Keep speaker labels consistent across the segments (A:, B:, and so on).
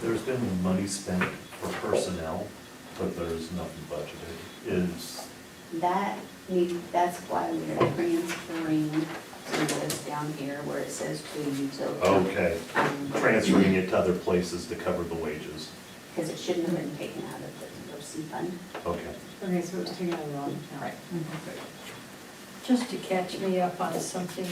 A: There's been money spent for personnel, but there's nothing budgeted. Is,
B: That, need- that's why we're transferring to this down here where it says to utility.
A: okay, transferring it to other places to cover the wages.
B: Because it shouldn't have been taken out of the OC fund.
A: Okay.
C: Okay, so it's taken out of the wrong account.
D: Right.
C: Mm-hmm.
E: Just to catch me up on something,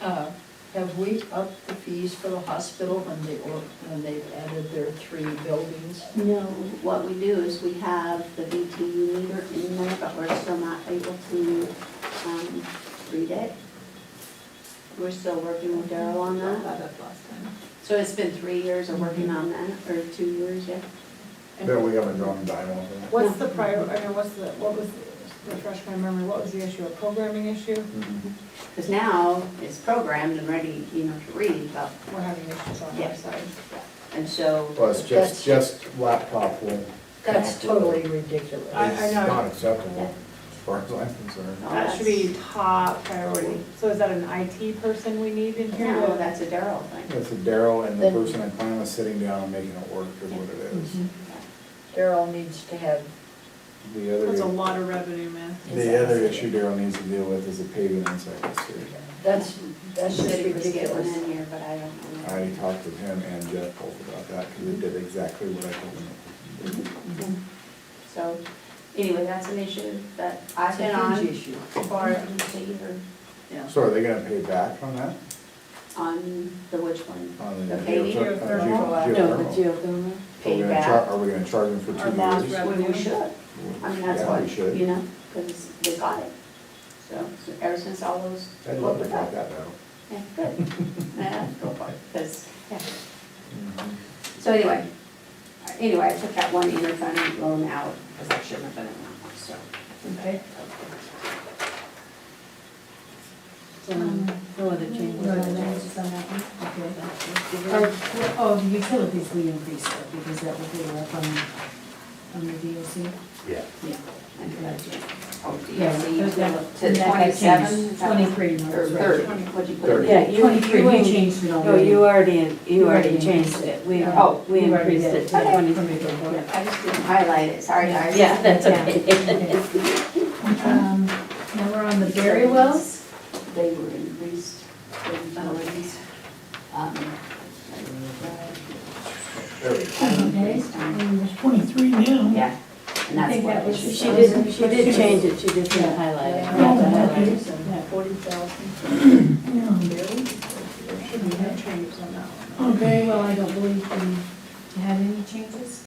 E: uh, have we upped the fees for the hospital when they, or- when they've added their three buildings?
B: No, what we do is we have the VTU meter in there, but we're still not able to um, read it. We're still working with Daryl on that.
D: That up last time.
B: So it's been three years of working on that, or two years, yeah.
F: That we haven't drawn a dime off of.
C: What's the prior, I mean, what's the, what was, refresh my memory, what was the issue, a programming issue?
B: Because now it's programmed and ready, you know, to read, but,
C: We're having issues on our
B: Yeah.
C: side.
B: and so.
F: Well, it's
E: That's-
F: just, just laptop will.
E: That's totally ridiculous.
C: I- I
F: It's
C: know.
F: not acceptable, as far as I'm concerned.
B: Oh,
C: That should be top priority. So is that an IT person we need in here?
B: No, Oh, that's a Daryl thing.
F: That's a Daryl and the
E: Then-
F: person in Klein was sitting down and making it work is what it is.
C: Mm-hmm.
E: Daryl needs to have,
F: The
C: That's a
F: other,
C: lot of revenue, man.
F: the other issue Daryl needs to deal with is the paving inside the street.
E: that's, that's just
B: City was given
E: ridiculous.
B: in here, but I don't
F: I
B: know.
F: already talked with him and Jeff both about that, because they did exactly what I told them.
B: So, anyway, that's an issue that I've
E: It's
B: been
E: a
B: on
E: huge issue.
B: for, a year
E: Yeah.
F: So are they gonna pay back on that?
B: on the which one?
F: On
B: The paving?
F: geother- on
B: Geothermal?
F: geo-
C: No, the
F: geothermal?
C: geothermal.
F: Are we
B: Paid
F: gonna char-
B: back.
F: Are we gonna charge them for
C: Or
F: two
C: that
F: years?
B: Well, we should, I mean, that's
F: Yeah, we
B: what,
F: should.
B: you know, because they got it. So, so ever since all those.
F: I'd love to fight that battle.
B: Yeah, good. Yeah, go for it, 'cause, yeah. So anyway, anyway, I took that one interfund loan out, because that shouldn't have been in that one, so.
E: Okay. Um,
D: No other changes.
G: Mm-hmm. No, no, it's just on that one.
D: Okay,
G: Or, well, oh, the utilities we increased though, because that would be up on, on the DOC.
A: Yeah.
B: Yeah. I did that, yeah. Oh,
G: Yeah, those got-
B: DOC
G: and
B: to
G: that got changed.
B: twenty-seven?
G: 23 was
B: Or
G: right.
B: thirty, what'd you put?
F: Thirty.
B: Yeah,
G: Yeah,
B: you- Oh,
G: you, you changed it
H: No,
G: already.
H: you already, you already
G: already
H: changed it. We,
G: Yeah.
H: oh, we
G: You already
H: increased it
G: did.
H: to
B: Okay.
H: twenty-three.
G: Yeah.
B: I just didn't highlight it, sorry guys.
H: Yeah, that's
G: Yeah.
H: okay.
G: Um, Now we're on the Berry wells.
B: They were increased, they were increased. Um,
G: Okay, and there's twenty-three now.
B: Yeah, and
G: I
B: that's
G: think
B: what.
G: that was-
B: it
H: She
B: should be.
H: did, she did change it, she just didn't highlight it.
G: Yeah.
D: Forty thousand.
C: There should be no changes on that one.
G: On Berry well, I don't believe we had any changes.